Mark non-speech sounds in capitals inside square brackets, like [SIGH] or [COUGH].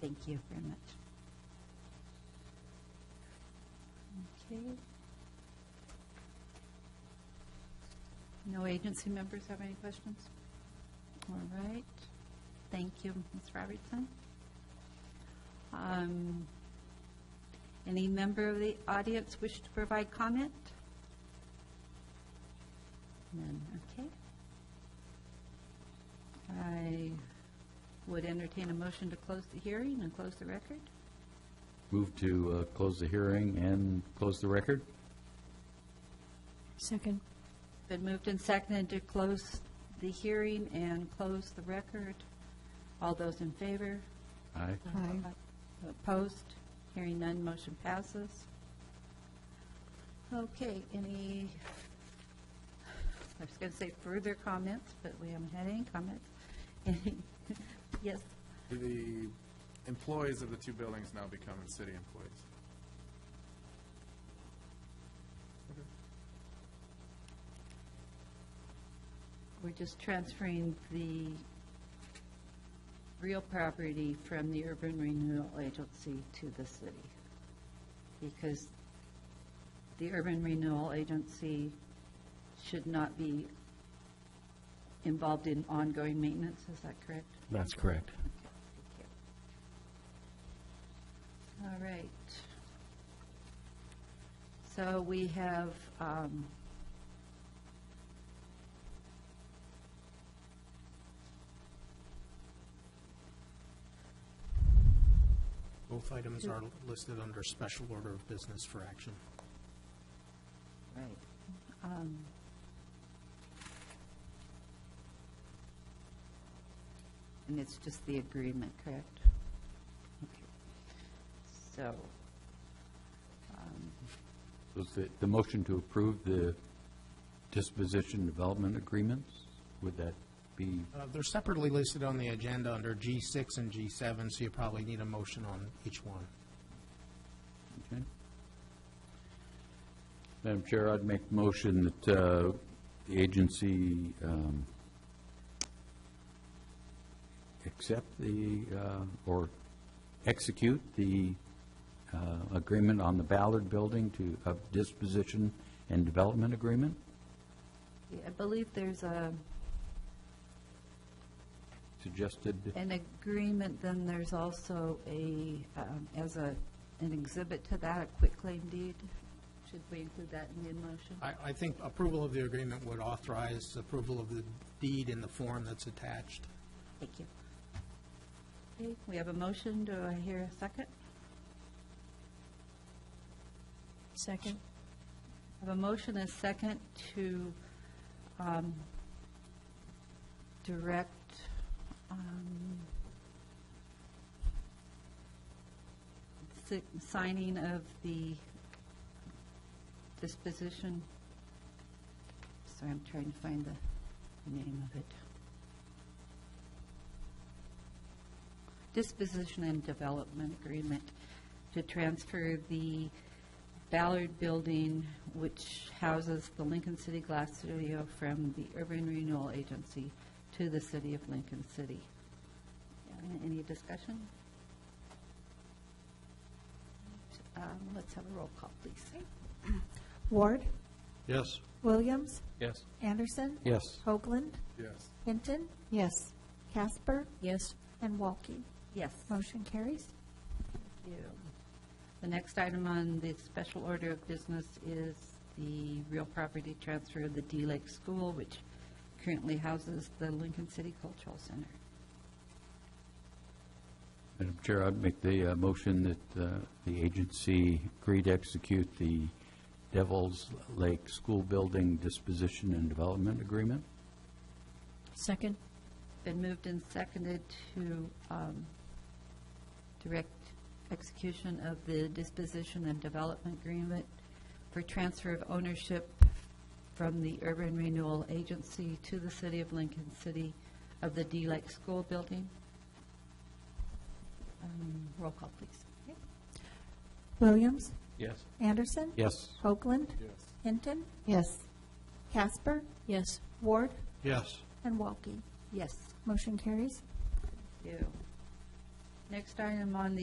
Thank you very much. Okay. No agency members have any questions? All right. Thank you, Ms. Robertson. Um, Any member of the audience wish to provide comment? None, okay. I would entertain a motion to close the hearing and close the record. Move to uh, close the hearing and close the record? Second. Been moved and seconded to close the hearing and close the record. All those in favor? Aye. Aye. Opposed? Hearing none, motion passes. Okay, any, I was going to say further comments, but we haven't had any comments. [LAUGHS] Any- Yes, The employees of the two buildings now becoming city employees. we're just transferring the real property from the Urban Renewal Agency to the city. Because the Urban Renewal Agency should not be involved in ongoing maintenance, is that correct? That's correct. All right. So we have, um, Both items are listed under special order of business for action. right. um, And it's just the agreement, correct? Okay. So, um, Was the, the motion to approve the disposition development agreements? Would that be, Uh, They're separately listed on the agenda under G6 and G7, so you probably need a motion on each one. okay? Madam Chair, I'd make motion that uh, the agency um, accept the, uh, or execute the uh, agreement on the Ballard Building to, of disposition and development agreement? yeah, I believe there's a, suggested, an agreement, then there's also a, um, as a, an exhibit to that, a quitclaim deed. Should we include that in the motion? I, I think approval of the agreement would authorize approval of the deed in the form that's attached. Thank you. Okay, we have a motion. Do I hear a second? Second. I have a motion and a second to um, direct, um, si- signing of the disposition. Sorry, I'm trying to find the name of it. Disposition and Development Agreement to transfer the Ballard Building, which houses the Lincoln City Glass Studio, from the Urban Renewal Agency to the City of Lincoln City. Uh, Any discussion? Um, Let's have a roll call, please. Ward, Yes. Williams, yes. Anderson, Yes. Hoagland, Yes. Hinton, Yes. Casper, Yes. and Walke. Yes. Motion carries. Thank you. The next item on the special order of business is the real property transfer of the D Lake School, which currently houses the Lincoln City Cultural Center. Madam Chair, I'd make the uh, motion that uh, the agency agree to execute the Devil's Lake School Building Disposition and Development Agreement. Second. Been moved and seconded to um, direct execution of the disposition and development agreement for transfer of ownership from the Urban Renewal Agency to the City of Lincoln City of the D Lake School Building. Um, Roll call, please. Williams, Yes. Anderson, Yes. Hoagland, Yes. Hinton, Yes. Casper, Yes. Ward, Yes. and Walke. Yes. Motion carries. you. Next item on the